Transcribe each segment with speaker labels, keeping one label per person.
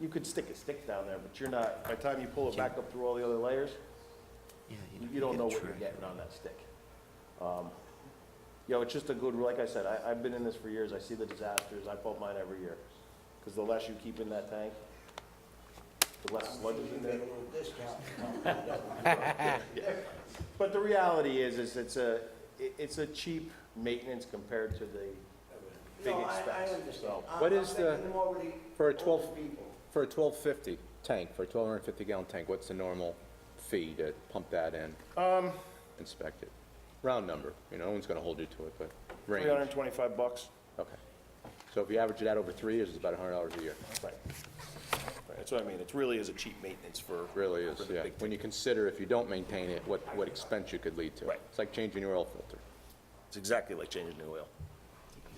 Speaker 1: you could stick a stick down there, but you're not, by the time you pull it back up through all the other layers,
Speaker 2: Yeah,
Speaker 1: you- you don't
Speaker 2: get
Speaker 1: know what you're
Speaker 2: track
Speaker 1: getting
Speaker 2: of
Speaker 1: on that stick. Um, You know, it's just a good, like I said, I, I've been in this for years, I see the disasters, I pump mine every year. Because the less you keep in that tank, the less sludge is in there. But the reality is, is it's a, it- it's a cheap maintenance compared to the big
Speaker 3: No, I, I
Speaker 1: expense.
Speaker 3: understand.
Speaker 1: So-
Speaker 3: I'm-
Speaker 4: What is
Speaker 3: I'm
Speaker 4: the-
Speaker 3: thinking more of the
Speaker 4: for a
Speaker 3: older
Speaker 4: 12
Speaker 3: people.
Speaker 4: For a 1250 tank, for a 1250 gallon tank, what's the normal fee to pump that in? Um. Inspect it? Round number, you know, no one's gonna hold you to it, but range.
Speaker 1: 325 bucks.
Speaker 4: Okay. So if you average it out over three years, it's about $100 a year.
Speaker 1: Right. Right, That's what I mean, it really is a cheap maintenance for.
Speaker 4: Really is,
Speaker 1: for the
Speaker 4: yeah.
Speaker 1: big
Speaker 4: When you consider if you don't maintain it, what, what expense you could lead to.
Speaker 1: Right.
Speaker 4: It's like changing your oil filter.
Speaker 1: It's exactly like changing new oil.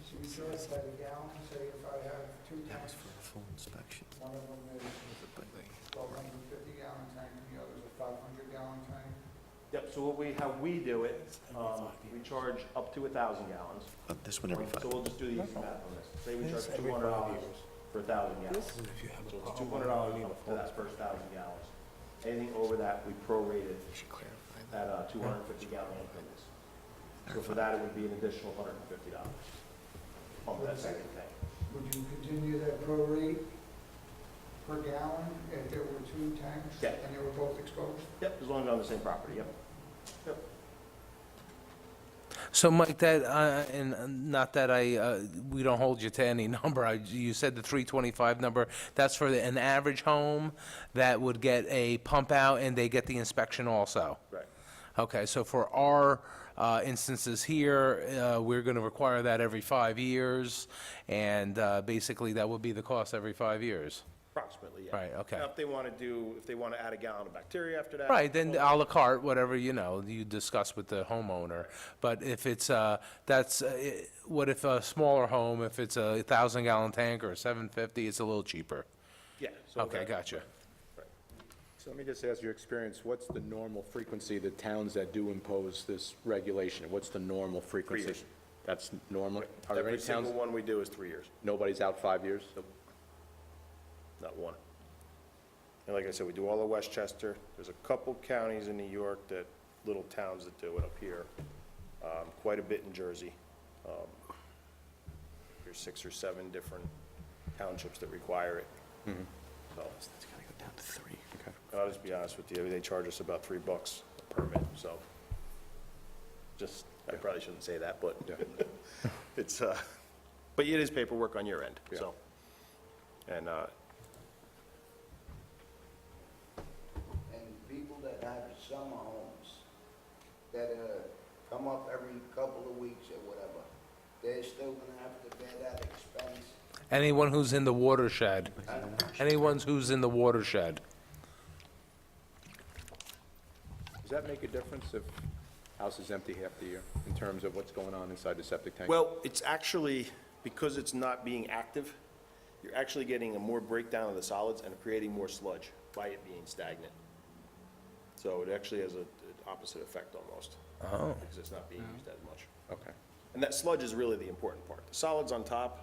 Speaker 5: So you charge by the gallon, say if I have two
Speaker 2: That was
Speaker 5: tanks,
Speaker 2: for a full inspection.
Speaker 5: one of them is twelve hundred and fifty gallon tank, and the other's a five hundred gallon tank.
Speaker 1: Yep, so what we, how we do it, um, we charge up to 1,000 gallons.
Speaker 2: Uh, This one every five.
Speaker 1: So we'll just do the easy math on this. Say we charge $200 for 1,000 gallons. So it's $200 up to that first 1,000 gallons. Anything over that, we prorate it
Speaker 2: You should clarify that.
Speaker 1: at uh, 250 gallon increments. So for that, it would be an additional $150 on that second tank.
Speaker 5: Would you continue that prorate per gallon if there were two tanks?
Speaker 1: Yeah.
Speaker 5: And they were both exposed?
Speaker 1: Yep, as long as they're on the same property, yep.
Speaker 6: So Mike, that, uh, and uh, not that I, uh, we don't hold you to any number, I, you said the 325 number, that's for the- an average home that would get a pump out and they get the inspection also?
Speaker 1: Right.
Speaker 6: Okay, so for our uh, instances here, uh, we're going to require that every five years, and uh, basically that would be the cost every five years.
Speaker 1: Approximately, yeah.
Speaker 6: Right, okay.
Speaker 1: Now, if they want to do, if they want to add a gallon of bacteria after that.
Speaker 6: Right, then uh,
Speaker 1: well,
Speaker 6: à la carte, whatever, you know, you discuss with the homeowner. But if it's, uh, that's, uh, i- what if a smaller home, if it's a thousand gallon tank or seven fifty, it's a little cheaper?
Speaker 1: Yeah. so
Speaker 6: Okay,
Speaker 1: that-
Speaker 6: gotcha.
Speaker 4: So let me just ask your experience, what's the normal frequency of the towns that do impose this regulation? What's the normal frequency?
Speaker 1: years.
Speaker 4: That's normal? Are there any
Speaker 1: Every single
Speaker 4: towns,
Speaker 1: one we do is three years,
Speaker 4: nobody's out five years?
Speaker 1: not one. And like I said, we do all of Westchester. There's a couple counties in New York that, little towns that do it up here. Um, Quite a bit in Jersey. Um, There's six or seven different townships that require it. So,
Speaker 2: Mm-hmm. It's gotta go down to three.
Speaker 1: and I'll just be honest with you, they charge us about three bucks a permit, so. Just, I probably shouldn't say that, but it's, uh, but it is paperwork on your end, so. And, uh,
Speaker 3: And people that have summer homes, that, uh, come up every couple of weeks or whatever, they're still gonna have to bear that expense.
Speaker 6: Anyone who's in the watershed,
Speaker 3: And
Speaker 6: anyone who's in the watershed.
Speaker 4: Does that make a difference if house is empty half the year in terms of what's going on inside the septic tank?
Speaker 1: Well, it's actually, because it's not being active, you're actually getting a more breakdown of the solids and creating more sludge by it being stagnant. So it actually has a- an opposite effect almost. Oh. Because it's not being used as much.
Speaker 4: Okay.
Speaker 1: And that sludge is really the important part. The solids on top,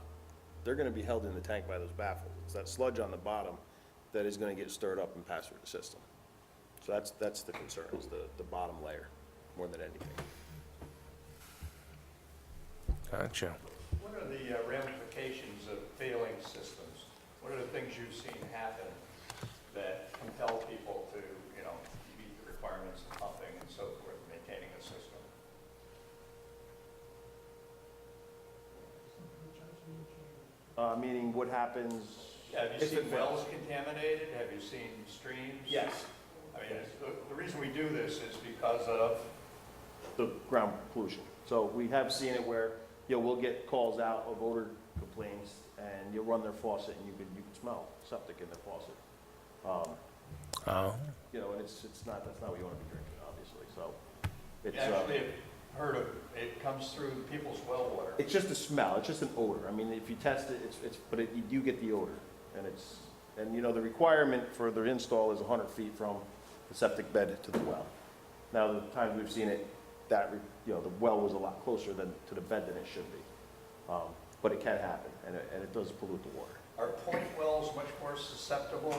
Speaker 1: they're gonna be held in the tank by those baffles. It's that sludge on the bottom that is gonna get stirred up and pass through the system. So that's, that's the concern, is the, the bottom layer, more than anything.
Speaker 6: Gotcha.
Speaker 7: What are the uh, ramifications of failing systems? What are the things you've seen happen that compel people to, you know, meet the requirements of pumping and so forth, maintaining a system?
Speaker 1: Uh, meaning what happens?
Speaker 7: Have you
Speaker 1: if it
Speaker 7: seen
Speaker 1: fails?
Speaker 7: wells contaminated? Have you seen streams?
Speaker 1: Yes.
Speaker 7: I mean, it's- the, the reason we do this is because of,
Speaker 1: the ground pollution. So we have seen it where, you know, we'll get calls out of odor complaints, and you'll run their faucet, and you can, you can smell septic in the faucet. Um,
Speaker 6: Oh.
Speaker 1: You know, and it's, it's not, that's not what you want to be drinking, obviously, so. It's,
Speaker 7: actually,
Speaker 1: uh,
Speaker 7: I've heard of, it comes through people's well water.
Speaker 1: it's just a smell, it's just an odor. I mean, if you test it, it's, it's, but it- you do get the odor, and it's, and you know, the requirement for the install is 100 feet from the septic bed to the well. Now, the times we've seen it, that, re- you know, the well was a lot closer than, to the bed than it should be. Um, But it can happen, and it, and it does pollute the water.
Speaker 7: Are Are point wells much more susceptible